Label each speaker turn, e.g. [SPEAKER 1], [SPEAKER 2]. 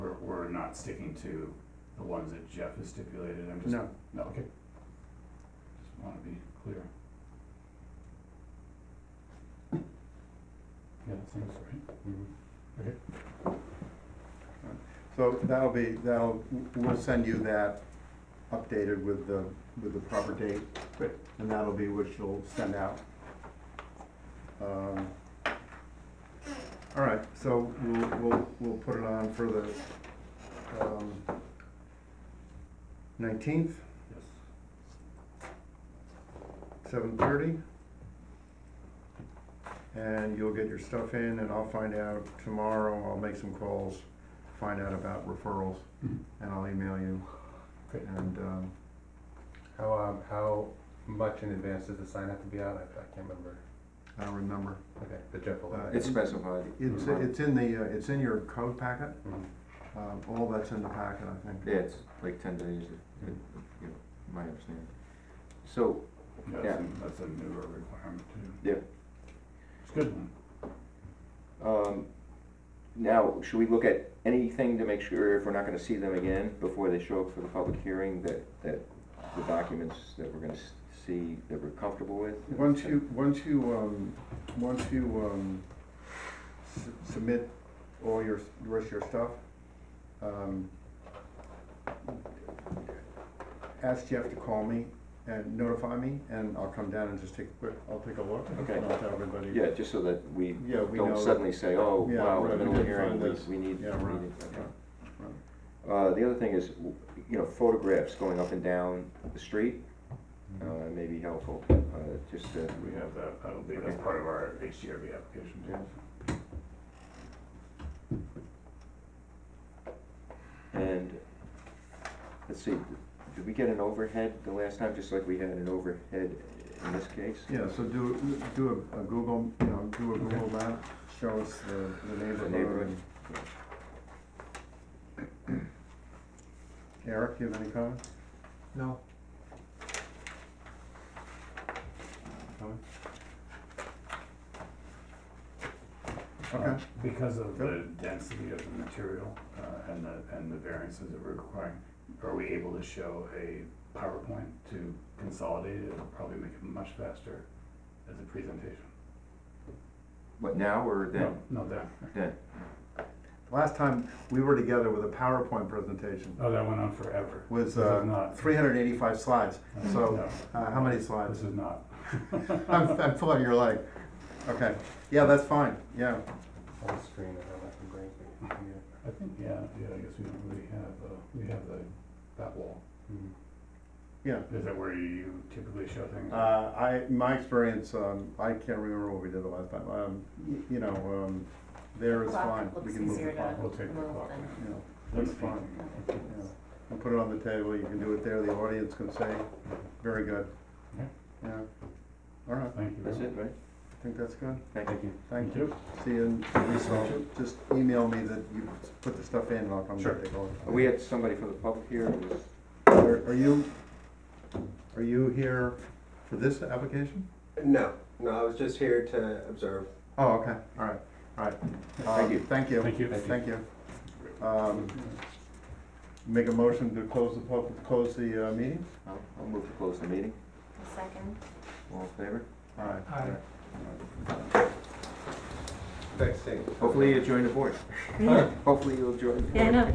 [SPEAKER 1] not sticking to the ones that Jeff has stipulated, I'm just.
[SPEAKER 2] No,
[SPEAKER 1] No, okay. Just wanna be clear. Yeah, that seems right. Mm-hmm.
[SPEAKER 2] so that'll be, that'll, we'll send you that updated with the, with the proper date.
[SPEAKER 1] Great.
[SPEAKER 2] And that'll be what you'll send out. Um, All right, so we'll, we'll, we'll put it on for the, um, nineteenth,
[SPEAKER 1] Yes.
[SPEAKER 2] seven thirty. And you'll get your stuff in and I'll find out tomorrow, I'll make some calls, find out about referrals.
[SPEAKER 1] Mhm.
[SPEAKER 2] and I'll email you.
[SPEAKER 1] Great.
[SPEAKER 2] And, um,
[SPEAKER 3] How, um, how much in advance does the sign have to be out? I, I can't remember.
[SPEAKER 2] I don't remember.
[SPEAKER 3] Okay, the Jeff will.
[SPEAKER 2] Uh,
[SPEAKER 4] It's specified.
[SPEAKER 2] It's, it's in the, uh, it's in your code packet,
[SPEAKER 3] Mhm.
[SPEAKER 2] um, all that's in the packet, I think.
[SPEAKER 4] Yeah, it's like ten days, it- it- you know, my understanding. So,
[SPEAKER 1] Yeah,
[SPEAKER 4] Yeah.
[SPEAKER 1] that's a- that's a newer requirement too.
[SPEAKER 4] Yeah.
[SPEAKER 1] It's a good one.
[SPEAKER 4] um, now, should we look at anything to make sure if we're not gonna see them again before they show up for the public hearing, that, that the documents that we're gonna s- see, that we're comfortable with?
[SPEAKER 2] Once you, once you, um, once you, um, su- submit all your, the rest of your stuff, um, ask Jeff to call me and notify me, and I'll come down and just take a quick, I'll take a look.
[SPEAKER 4] Okay.
[SPEAKER 2] And I'll tell everybody.
[SPEAKER 4] Yeah, just so that we
[SPEAKER 2] Yeah, we know.
[SPEAKER 4] don't suddenly say, oh,
[SPEAKER 2] Yeah,
[SPEAKER 4] wow, in
[SPEAKER 2] right, we
[SPEAKER 4] the middle of the
[SPEAKER 2] didn't
[SPEAKER 4] hearing,
[SPEAKER 2] find
[SPEAKER 4] we,
[SPEAKER 2] this.
[SPEAKER 4] we need.
[SPEAKER 2] Yeah,
[SPEAKER 4] we
[SPEAKER 2] right,
[SPEAKER 4] need- okay.
[SPEAKER 2] right, right.
[SPEAKER 4] Uh, the other thing is, w- you know, photographs going up and down the street, uh,
[SPEAKER 2] Mm-hmm.
[SPEAKER 4] may be helpful, uh, just to
[SPEAKER 1] We have that, that'll be, that's part of our HDRB application too.
[SPEAKER 4] Yeah. And, let's see, did we get an overhead the last time, just like we had an overhead in this case?
[SPEAKER 2] Yeah, so do, do a- a Google, you know, do a Google map, show us the, the neighborhood.
[SPEAKER 4] neighborhood,
[SPEAKER 2] and- Eric, do you have any comments?
[SPEAKER 3] No.
[SPEAKER 2] Comments?
[SPEAKER 1] Uh,
[SPEAKER 2] Okay,
[SPEAKER 1] Because of
[SPEAKER 2] Yep.
[SPEAKER 1] the density of the material uh, and the, and the variances that we're requiring, are we able to show a PowerPoint to consolidate it? It'll probably make it much faster as a presentation.
[SPEAKER 4] What, now or then?
[SPEAKER 1] No, no, that,
[SPEAKER 4] Then,
[SPEAKER 2] last time we were together with a PowerPoint presentation
[SPEAKER 1] oh, that went on forever. This
[SPEAKER 2] was,
[SPEAKER 1] is
[SPEAKER 2] uh,
[SPEAKER 1] not.
[SPEAKER 2] three hundred and eighty-five slides, so,
[SPEAKER 1] no,
[SPEAKER 2] uh, how many
[SPEAKER 1] This
[SPEAKER 2] slides?
[SPEAKER 1] is not.
[SPEAKER 2] I'm, I'm pulling your leg, okay, yeah, that's fine, yeah,
[SPEAKER 3] On the screen, I don't know if I'm bringing it to you.
[SPEAKER 1] I think, yeah, yeah, I guess we don't really have, uh, we have the, that wall.
[SPEAKER 3] Mhm.
[SPEAKER 2] yeah.
[SPEAKER 1] Is that where you typically show things?
[SPEAKER 2] Uh, I, my experience, um, I can't remember what we did the last time, um, y- you know, um, there is
[SPEAKER 5] Clock
[SPEAKER 2] fine, we
[SPEAKER 5] looks
[SPEAKER 2] can move the
[SPEAKER 5] easier
[SPEAKER 2] clock,
[SPEAKER 5] to-
[SPEAKER 1] We'll take the
[SPEAKER 5] Little
[SPEAKER 1] clock.
[SPEAKER 5] thing.
[SPEAKER 2] you know,
[SPEAKER 1] That's
[SPEAKER 2] Looks fine.
[SPEAKER 1] fine.
[SPEAKER 2] yeah. And put it on the table, you can do it there, the audience can say, very good.
[SPEAKER 1] Okay.
[SPEAKER 2] Yeah, all right,
[SPEAKER 1] Thank you.
[SPEAKER 4] that's it, right?
[SPEAKER 2] I think that's good,
[SPEAKER 3] Thank you.
[SPEAKER 2] thank
[SPEAKER 1] Thank
[SPEAKER 2] you,
[SPEAKER 1] you.
[SPEAKER 2] see you, in-
[SPEAKER 1] Thank you.
[SPEAKER 2] just email me that you put the stuff in, and I'll come
[SPEAKER 1] Sure.
[SPEAKER 2] take a look.
[SPEAKER 4] We had somebody from the public here, who was,
[SPEAKER 2] Are are you, are you here for this application?
[SPEAKER 6] No, no, I was just here to observe.
[SPEAKER 2] Oh, okay, all right, all right.
[SPEAKER 4] Thank
[SPEAKER 2] Um,
[SPEAKER 4] you.
[SPEAKER 2] Thank you.
[SPEAKER 1] Thank you.
[SPEAKER 2] Thank you. Um, Make a motion to close the public, close the uh, meeting?
[SPEAKER 4] I'll, I'll move to close the meeting,
[SPEAKER 5] A second.
[SPEAKER 4] all in favor?
[SPEAKER 2] All right.
[SPEAKER 6] Thanks, Steve.
[SPEAKER 4] Hopefully you join the board, hopefully you'll join. the board.
[SPEAKER 5] Yeah, I know.